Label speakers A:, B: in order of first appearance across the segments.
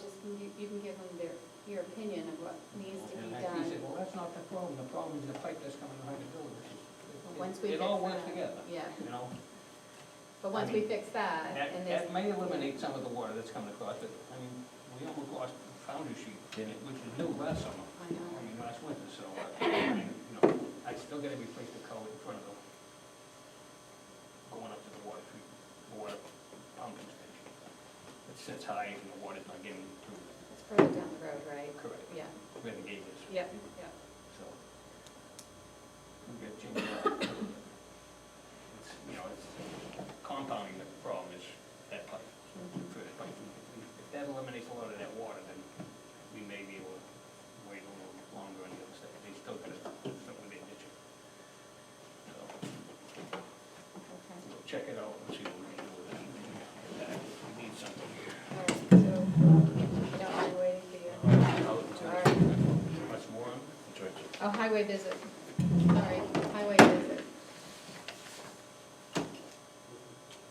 A: just, you you can give them their, your opinion of what needs to be
B: And like he
A: done.
B: said, well, that's not the problem, the problem is the pipe that's coming behind the building.
A: But
B: It-
A: once we
B: It all
A: fix
B: works
A: that-
B: together,
A: Yeah,
B: you know?
A: but once we fix that,
B: That,
A: and there's
B: that may eliminate some of the water that's coming across, but, I mean, we almost lost foundry sheet, which is new last summer,
A: I know.
B: I mean, last winter, so, uh, you know, I still gotta replace the culvert in front of the, going up to the water treatment, water pumping station. It sits high and the water's not getting through,
A: It's further down the road, right?
B: correct,
A: Yeah,
B: where the gate is.
A: yeah, yeah.
B: So. We gotta change that. It's, You know, it's compounding the problem is that pipe, first pipe. If that eliminates a lot of that water, then we may be able to wait a little longer on the other side. They still gotta, still with their ditching. So,
A: Okay.
B: we'll check it out and see what we can do with it. We need something here.
A: All right, so, uh, you don't mind waiting for you? uh,
B: Much more?
A: Oh, highway visit, sorry, highway visit.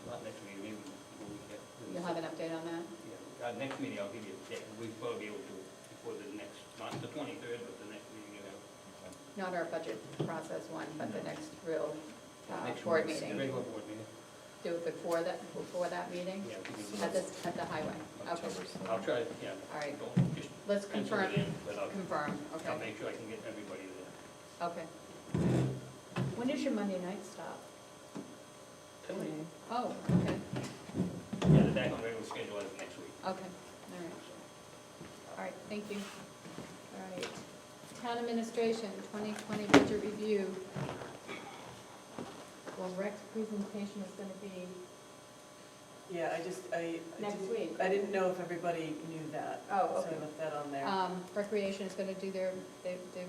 B: Not next meeting, maybe when we get.
A: You'll have an update on that?
B: Yeah, uh, next meeting, I'll give you, a date. we'll probably be able to, before the next, not the twenty-third, but the next meeting, you have.
A: Not our budget process one, but the next real uh,
B: Next
A: board
B: one's the
A: meeting.
B: Regular board meeting.
A: Do it before that, before that meeting?
B: Yeah, we can do that.
A: At this, at the highway? Okay,
B: I'll try, to- yeah.
A: All right.
B: Don't just
A: let's
B: pencil
A: confirm,
B: it in, but I'll,
A: confirm,
B: I'll
A: okay,
B: make sure I can get everybody there.
A: okay. When does your Monday night stop? Oh, okay,
B: Yeah, the back on regular schedule is next week.
A: okay, all right. All right, thank you. All right. Town administration, 2020 budget review. Well, Rex's presentation is going to be
C: Yeah, I just, I. I
A: next
C: didn't-
A: week.
C: I didn't know if everybody knew that.
A: Oh,
C: So
A: okay.
C: I left that on there.
A: Um, Recreation is gonna do their, they, they,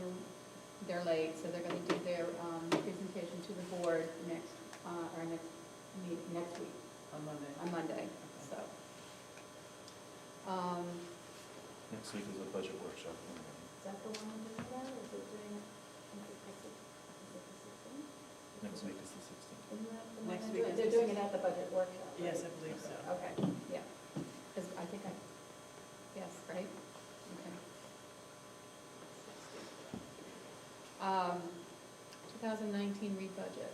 A: they're late, so they're gonna do their, um, presentation to the board next, uh, or next, meet, next week,
C: On Monday.
A: on Monday, so. Um,
D: Next week is a budget workshop.
A: is that the one doing that, or is it doing, is it the six- is it the sixteenth?
D: Next week is the sixteenth.
A: Isn't that the one
C: Next
A: they're
C: week
A: doing?
C: is
A: They're
C: the
A: doing it at the budget workshop, right?
C: Yes, I believe so.
A: Okay, yeah, 'Cause I think I, yes, right, okay. Um, 2019 re-budget,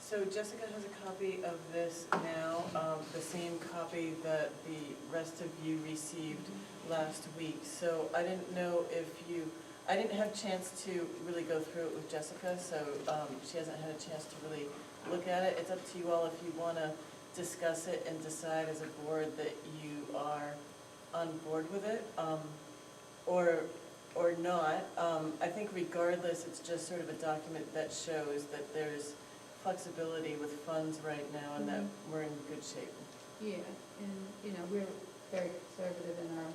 C: So Jessica has a copy of this now, um, the same copy that the rest of you received last week. So I didn't know if you, I didn't have a chance to really go through it with Jessica, so um, she hasn't had a chance to really look at it. It's up to you all if you want to discuss it and decide as a board that you are on board with it um, or, or not. Um, I think regardless, it's just sort of a document that shows that there's flexibility with funds right now and that
A: Mhm.
C: we're in good shape.
A: yeah, and, you know, we're very conservative in our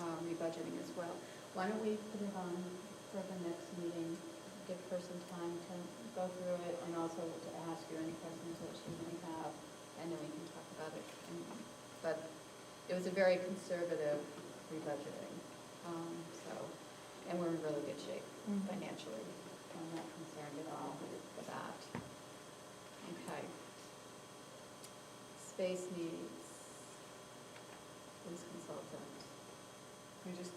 A: um, re-budgeting as well. Why don't we put it on for the next meeting, give her some time to go through it and also to ask you any questions that she may have, and then we can talk about it. And- But it was a very conservative re-budgeting, um, so, and we're in really good shape financially. I'm not concerned at all with that. Okay. Space needs, police consultant.
C: Can we just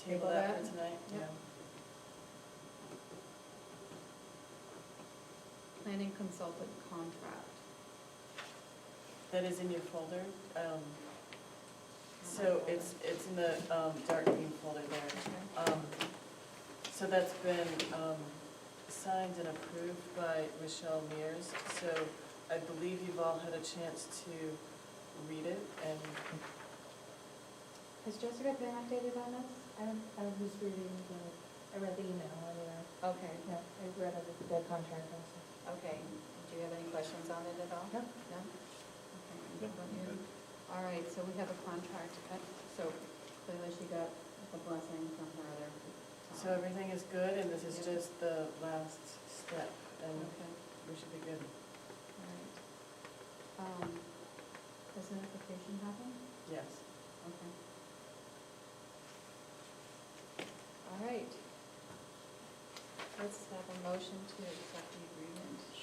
A: Table
C: table that
A: that?
C: for tonight?
A: Yep. Planning consultant contract.
C: That is in your folder. Um, So it's, it's in the um, dark green folder there.
A: Okay.
C: Um, So that's been um, signed and approved by Michelle Mears. So I believe you've all had a chance to read it and
A: Has Jessica been updated on this?
E: I I was reading the, I read the email earlier,
A: Okay,
E: no, I read the the contract also.
A: okay. Do you have any questions on it at all?
E: No.
A: No? Okay. All right, so we have a contract, uh, so clearly she got the blessing from her other.
C: so everything is good and this is
A: Yeah.
C: just the last step and
A: Okay.
C: we should be good.
A: All right. Um, Does notification happen?
C: Yes.
A: Okay. All right. Let's have a motion to accept the agreement.